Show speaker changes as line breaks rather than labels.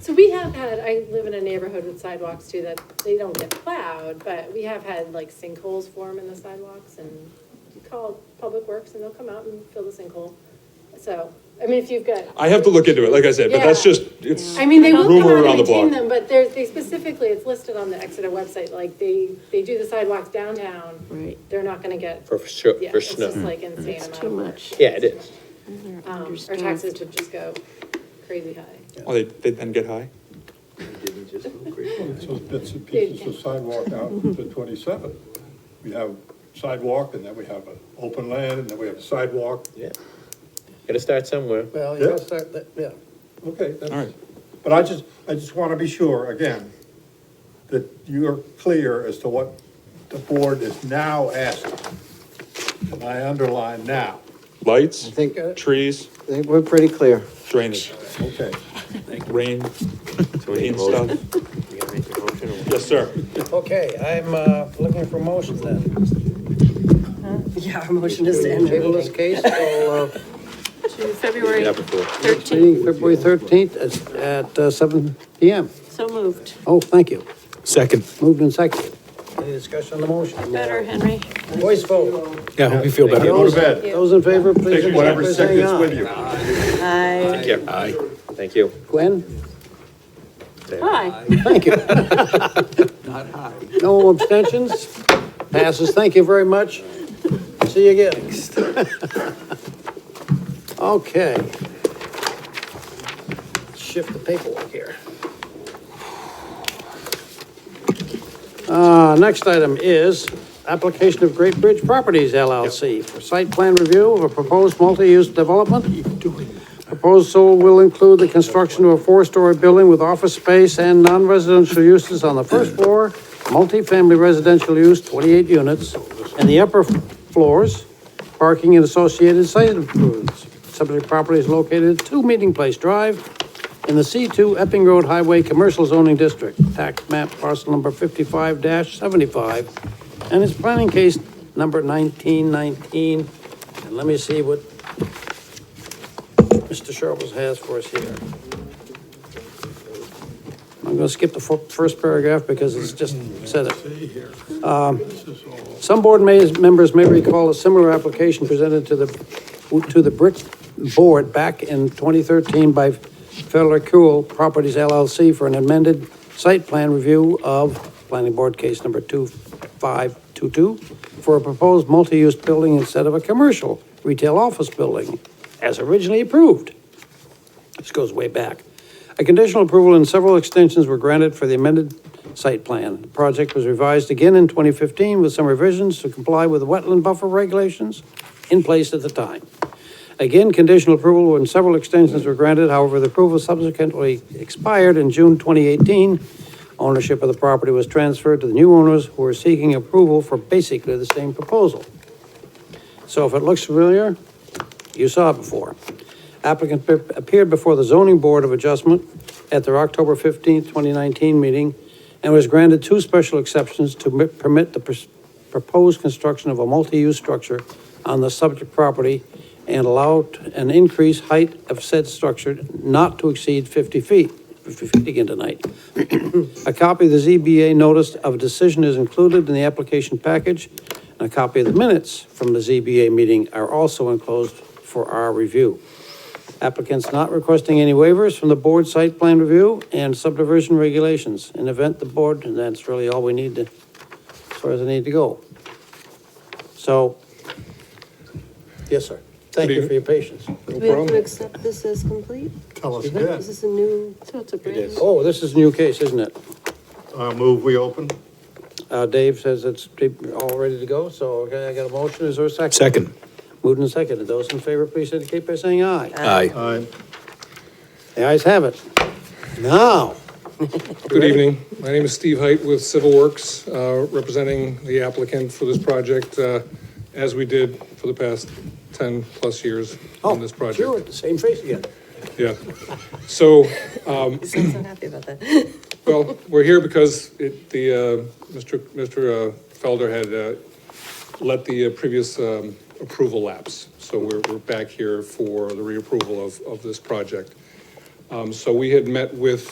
So we have had, I live in a neighborhood with sidewalks too, that they don't get plowed, but we have had like sinkholes form in the sidewalks and you call Public Works and they'll come out and fill the sinkhole. So, I mean, if you've got,
I have to look into it, like I said, but that's
Yeah.
just, it's
I mean, they will come
rumor
out
around
and
the
maintain
block.
them, but there's, they specifically, it's listed on the Exeter website, like they, they do the sidewalks downtown.
Right.
They're not gonna get,
for, sure,
yeah,
for
it's
snow.
just like insane amount
Too
of work.
much.
Yeah, it is.
They're
Um, our
understaffed.
taxes would just go crazy high.
Oh, they, they then get high?
It's those bits and pieces of sidewalk out to twenty-seven. We have sidewalk, and then we have an open land, and then we have a sidewalk.
Yeah. Gotta start somewhere.
Well, you gotta
Yeah.
start, that- yeah.
Okay, that's.
All right.
But I just, I just want to be sure, again, that you're clear as to what the board is now asking. And I underline now,
Lights,
I think, I
trees,
think we're pretty clear.
drainage,
okay.
rain, clean stuff.
You gotta make your motion or what?
Yes, sir.
Okay, I'm, uh, looking for motion then.
Yeah, our motion is to end the
Table this
meeting.
case till, uh,
To
Yeah,
February
before.
next meeting, February thirteenth at, at uh, seven P M.
So moved.
Oh, thank you.
Second.
Moved and seconded. Any discussion on the motion?
Better, Henry.
Voice vote.
Yeah, I hope you feel better.
Go to bed.
Those in favor, please.
Take whatever sickness with you.
Aye.
Thank you. Aye. Thank you.
Gwen,
Aye.
thank you. No abstentions? Passes, thank you very much. See you again. Okay. Shift the paperwork here. Uh, next item is application of Great Bridge Properties LLC for site plan review of a proposed multi-use development. Proposal will include the construction of a four-story building with office space and non-residential uses on the first floor, multifamily residential use, twenty-eight units, and the upper floors, parking and associated site improvements. Subject property is located at Two Meeting Place Drive in the C2 Epping Road Highway Commercial Zoning District, tax map parcel number fifty-five seventy-five, and its planning case number nineteen nineteen. And let me see what Mr. Sharples has for us here. I'm gonna skip the fir- first paragraph because it's just said it. Um, Some board may- members may recall a similar application presented to the, to the Brick Board back in 2013 by Federal Kuhl Properties LLC for an amended site plan review of Planning Board Case Number 2522 for a proposed multi-use building instead of a commercial retail office building, as originally approved. This goes way back. A conditional approval and several extensions were granted for the amended site plan. The project was revised again in 2015 with some revisions to comply with the wetland buffer regulations in place at the time. Again, conditional approval and several extensions were granted, however, the approval subsequently expired in June 2018. Ownership of the property was transferred to the new owners who are seeking approval for basically the same proposal. So if it looks familiar, you saw it before. Applicant pe- appeared before the zoning board of adjustment at their October fifteenth, twenty nineteen meeting and was granted two special exceptions to mi- permit the pers- proposed construction of a multi-use structure on the subject property and allowed an increased height of said structure not to exceed fifty feet, fifty feet again tonight. A copy of the ZBA notice of decision is included in the application package, and a copy of the minutes from the ZBA meeting are also enclosed for our review. Applicants not requesting any waivers from the board site plan review and subdivision regulations. In event the board, and that's really all we need to, as far as I need to go. So, yes, sir. Thank you for your patience.
Do we have to accept this as complete?
Tell us
Is
that.
this a new?
So it's a brand new.
Oh, this is a new case, isn't it?
I'll move, we open.
Uh, Dave says it's all ready to go, so okay, I got a motion. Is there a second?
Second.
Moved and seconded. Those in favor, please indicate by saying aye.
Aye.
Aye.
The ayes have it. Now,
Good evening. My name is Steve Height with Civil Works, uh, representing the applicant for this project, uh, as we did for the past 10-plus years
oh,
on this project.
sure, the same face again.
Yeah. So,
You sound so happy about that.
well, we're here because it, the, uh, Mr. Mr. uh, Felder had, uh, let the uh, previous, um, approval lapse. So we're, we're back here for the reapproval of, of this project. Um, so we had met with